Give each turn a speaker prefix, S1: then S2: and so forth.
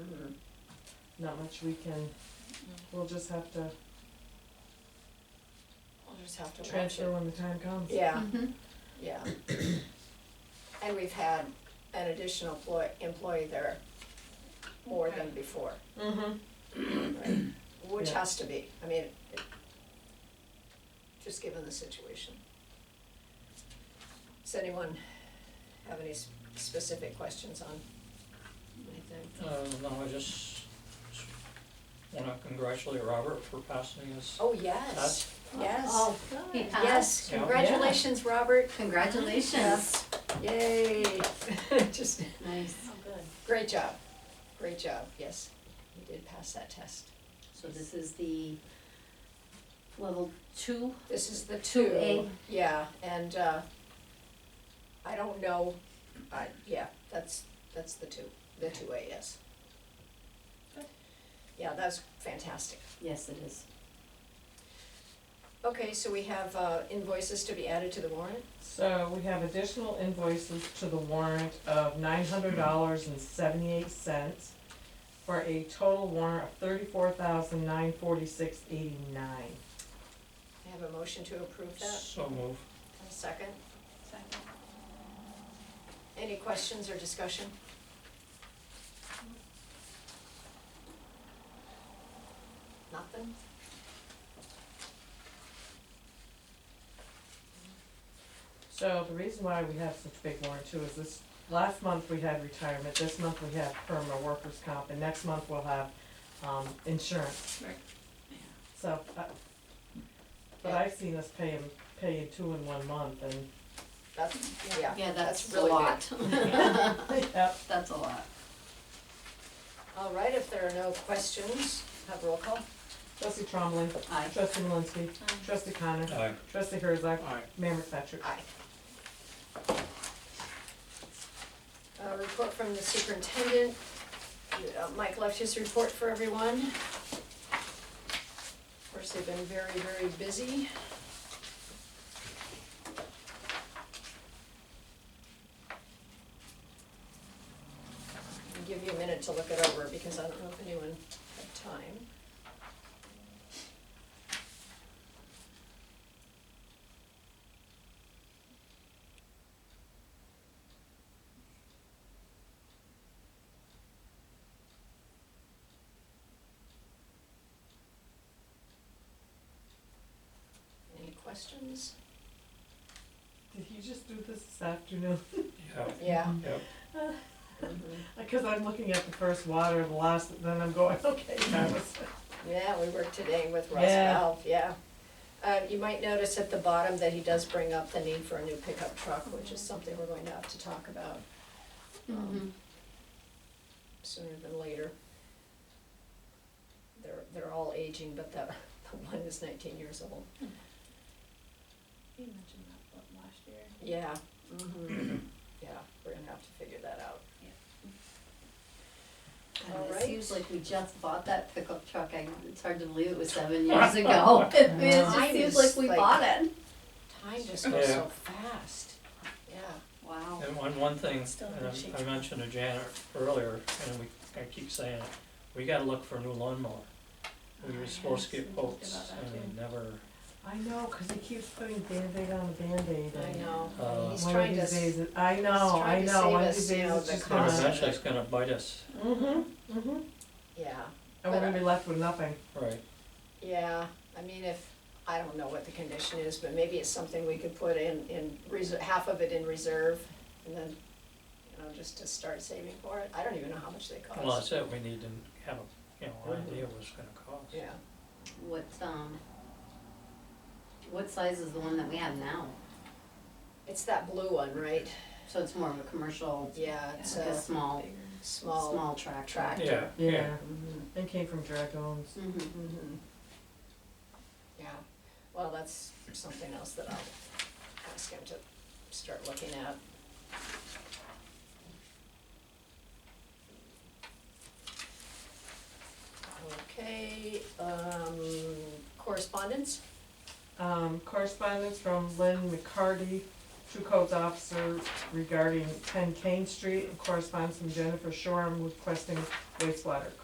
S1: Mm-hmm. not much we can,
S2: Mm-hmm.
S1: we'll just have to
S2: We'll just have to watch
S1: transfer Mm.
S2: it.
S1: when the time comes.
S2: Yeah,
S3: Mhm.
S2: yeah. And we've had an additional ploy, employee there more than before,
S1: Mm-hmm.
S2: right? Which
S1: Yeah.
S2: has to be, I mean, it- just given the situation. Does anyone have any s- specific questions on anything?
S4: Uh, no, I just wanna congratulate Robert for passing his
S2: Oh, yes,
S4: test.
S2: yes,
S3: Oh, he
S2: yes,
S3: passed.
S4: Yeah.
S2: congratulations, Robert,
S3: Congratulations.
S2: yay. Just
S3: Nice.
S2: Great job, great job, yes, you did pass that test.
S3: So this is the level two?
S2: This is the
S3: Two
S2: two,
S3: A.
S2: yeah, and, uh, I don't know, I, yeah, that's, that's the two, the two A, yes. Yeah, that's fantastic.
S3: Yes, it is.
S2: Okay, so we have, uh, invoices to be added to the warrant,
S1: So we have additional invoices to the warrant of nine hundred dollars and seventy-eight cents for a total warrant of thirty-four thousand nine forty-six eighty-nine.
S2: I have a motion to approve that,
S4: So move.
S2: a second? Second. Any questions or discussion? Nothing?
S1: So the reason why we have such big warrant too is this, last month we had retirement, this month we have perma workers comp, and next month we'll have, um, insurance.
S2: Right.
S1: So, uh, but I've seen us pay 'em- pay you two in one month and,
S2: That's, yeah,
S3: Yeah,
S2: that's
S3: that's a
S2: really good.
S3: lot.
S1: yep,
S3: That's a lot.
S2: All right, if there are no questions, have roll call.
S1: trustee Trombley,
S3: Aye.
S1: trustee Malinsky,
S2: Mm-hmm.
S1: trustee Connor,
S4: Aye.
S1: trustee Herzog,
S4: Aye.
S1: Mayor McFetrich.
S2: Aye. Uh, report from the superintendent. Uh, Mike left his report for everyone. Of course, they've been very, very busy. I'll give you a minute to look it over because I don't know if anyone had time. Any questions?
S1: Did he just do this this afternoon?
S4: Yeah,
S2: Yeah.
S4: Yep.
S2: Uh,
S1: Cause I'm looking at the first water, the last, then I'm going, okay, that was.
S2: Yeah, we worked today with Ross
S1: Yeah.
S2: Valve, yeah. Uh, you might notice at the bottom that he does bring up the need for a new pickup truck, which is something we're going to have to talk about
S3: Mhm.
S2: sooner than later. They're, they're all aging, but the, the one is nineteen years old.
S5: You mentioned that what, last year.
S2: Yeah, mhm, yeah, we're gonna have to figure that out.
S3: God,
S2: All
S3: it
S2: right.
S3: seems like we just bought that pickup truck. I, it's hard to believe it was seven years ago. I mean,
S2: Mine
S3: it just
S2: is
S3: seems like we
S2: like-
S3: bought it.
S2: Time just goes
S4: Yeah.
S2: so fast, yeah,
S3: Wow.
S4: And one, one thing,
S5: Still
S4: and
S5: shaking.
S4: I- I mentioned to Janet earlier, and we, I keep saying it, we gotta look for a new lawnmower. We
S5: Oh,
S4: were supposed to
S5: yes,
S4: get
S5: we talked
S4: quotes
S5: about that
S4: and we
S5: too.
S4: never,
S1: I know, cause he keeps putting Band-Aid on the Band-Aid
S2: I
S1: and-
S2: know,
S4: Uh,
S2: he's
S1: One of
S2: trying to,
S1: these
S2: s-
S1: days it- I know, I
S2: trying to
S1: know, one of
S2: save
S1: these
S2: us, you
S1: days
S2: know,
S1: it's just
S2: the
S4: and
S2: cost.
S1: gonna.
S4: eventually it's gonna bite us,
S1: Mm-hmm, mm-hmm.
S2: yeah.
S1: And we're gonna be left with nothing.
S4: right?
S2: Yeah, I mean, if, I don't know what the condition is, but maybe it's something we could put in, in reserve, half of it in reserve, and then, you know, just to start saving for it, I don't even know how much they
S4: Well,
S2: cost.
S4: that's it, we need to have a, you know, idea what it's gonna cost.
S2: Yeah,
S3: What, um, what size is the one that we have now?
S2: it's that blue one, right?
S3: So it's more of a commercial,
S2: Yeah, it's
S3: like a
S2: a
S3: small,
S2: small,
S3: small tractor.
S2: tractor.
S4: Yeah, yeah,
S2: mhm,
S1: And came from Dragones.
S3: Mm-hmm.
S2: mhm. Yeah, well, that's something else that I'll ask him to start looking at. Okay, um, correspondence,
S1: Um, correspondence from Lynn McCarty, True Codes Officer regarding ten Kane Street, and correspondence from Jennifer Shoreham requesting wastewater